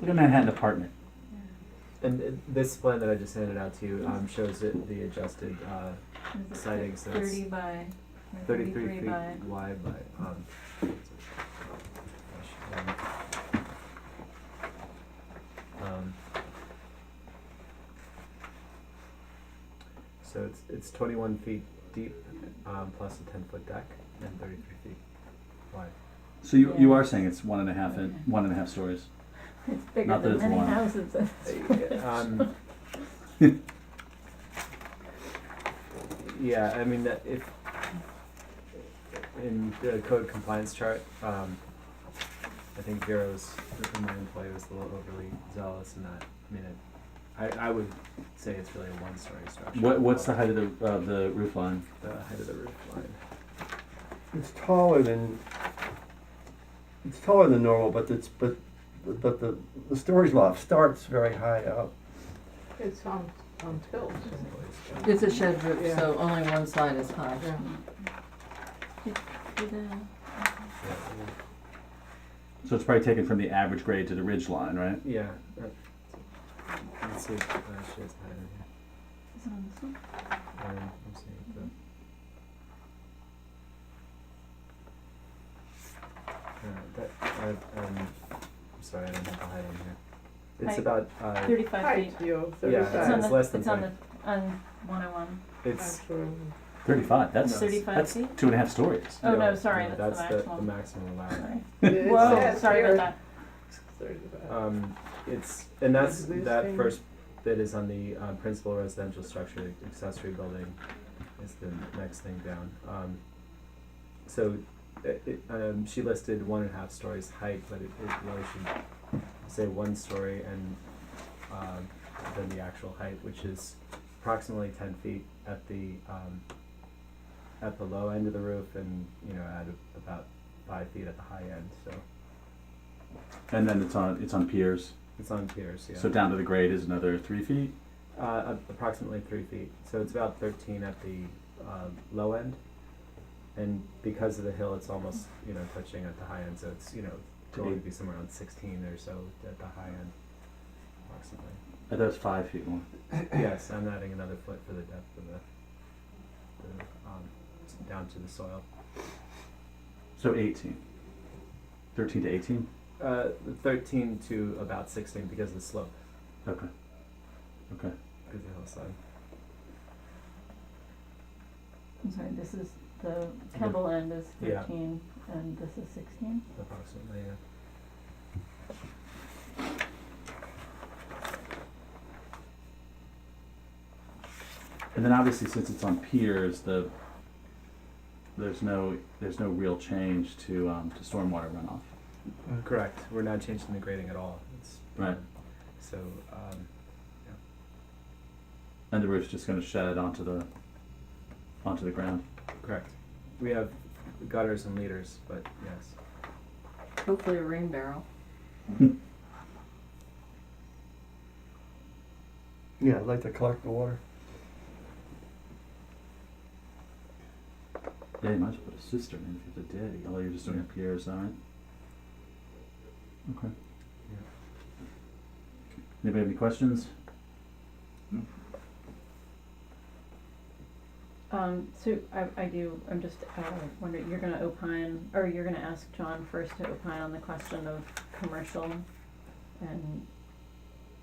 Look at Manhattan apartment. And uh, this plan that I just handed out to you um, shows it, the adjusted uh, Is it Sightings, so it's Thirty by, or 33 thirty-three feet by, wide by. Um, so- gosh, um, um, so it's it's 21 feet deep um, plus a 10 foot deck and 33 feet wide. So you, you Yeah. are saying it's one and a half in, one and a half stories. it's Not that bigger than it's many one. houses. Uh, um, yeah, I mean, that if in the code compliance chart, um, I think Vero's, my employee was a little overly zealous in that. I mean, it, I, I would say it's really a one story structure. What, what's the height of the, of the roof line? The height of the roof line. It's taller than, it's taller than normal, but it's, but, but the, the storage loft starts very high up. It's on, on tilt. It's a shed roof, Yeah. so only one side is high. Yeah. So it's probably taken from the average grade to the ridge line, right? Yeah. uh, Let's see if uh, she has height in here. Um, I'm seeing it, but- Uh, that, I, um, I'm sorry, I don't have the height in here. It's Height. about, uh, Thirty-five feet. Height, you, It's Yeah, on it's thirty-five. the, less than it's on the, on one oh one, it's, Thirty-five, that's, No. thirty-five that's feet? two and a half stories. Oh, no, no, sorry, no, that's the the, maximum. maximum allowed. Sorry. Actually. Whoa, sorry about that. that. Um, it's, and that's, Is this that thing- first bit is on the, um, principal residential structure, accessory building is the next thing down. Um, so, it, it, um, she listed one and a half stories height, but it, it really should say one story and, um, then the actual height, which is approximately ten feet at the, um, at the low end of the roof and, you know, add about five feet at the high end, so And then it's on, it's on piers, it's on piers, yeah. so down to the grade is another three feet. Uh, a- approximately three feet. So it's about 13 at the uh, low end. And because of the hill, it's almost, you know, touching at the high end. So it's, you know, To going be- to be somewhere around 16 or so at the high end, approximately. I thought it was five feet long. yes, I'm adding another foot for the depth of the, the um, s- down to the soil. So eighteen. Thirteen to eighteen? Uh, 13 to about 16 because of the slope, Okay. Okay. because of the hillside. I'm sorry, this is, the pebble end is Yeah. thirteen and this is sixteen? approximately. Yeah. And then obviously, since it's on piers, the, there's no, there's no real change to, um, to stormwater runoff. Correct. We're not changing the grading at all. It's, Right. So um, And the roof's just gonna shed onto the, onto the ground. Correct. We have gutters and leaders, but yes. Hopefully a rain barrel. Yeah, I'd like to collect the water. Yeah, you might as well put a cistern in if you have to dig, although you're just doing a pier, is that right? Okay. Yeah. Anybody have any questions? Um, so I, I do, I'm just, uh, wondering, you're gonna opine, or you're gonna ask John first to opine on the question of commercial and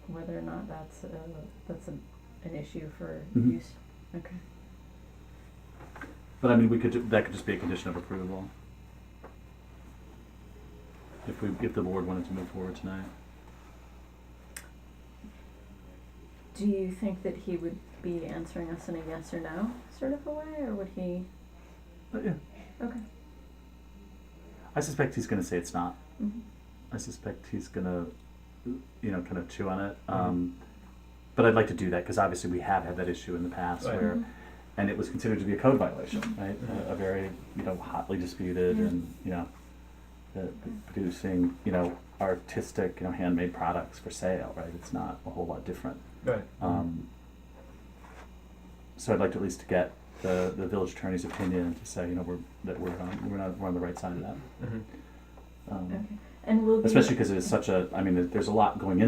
whether or not that's a, that's an, an issue for Mhm. use? Okay. But I mean, we could, ju- that could just be a condition of approval. If we, if the board wanted to move forward tonight. Do you think that he would be answering us in a yes or no sort of a way, or would he? Oh, But yeah, Okay. I suspect he's gonna say it's not. Mhm. I suspect he's gonna, you know, kind of chew on it. Mm-hmm. Um, but I'd like to do that because obviously we have had that issue in the past Right. where, and it was considered to be a code violation, right? Mhm. A, a very you know hotly disputed Yeah. and you know, uh, producing you know artistic you know handmade products for sale, right? It's not a whole lot different. Right. Mm-hmm. Um, so I'd like to at least get the, the village attorney's opinion to say you know we're that we're on we're not we're on the right side of that. Mhm. Um, Okay. And will you? especially because it's such a, I mean, there's a lot going in.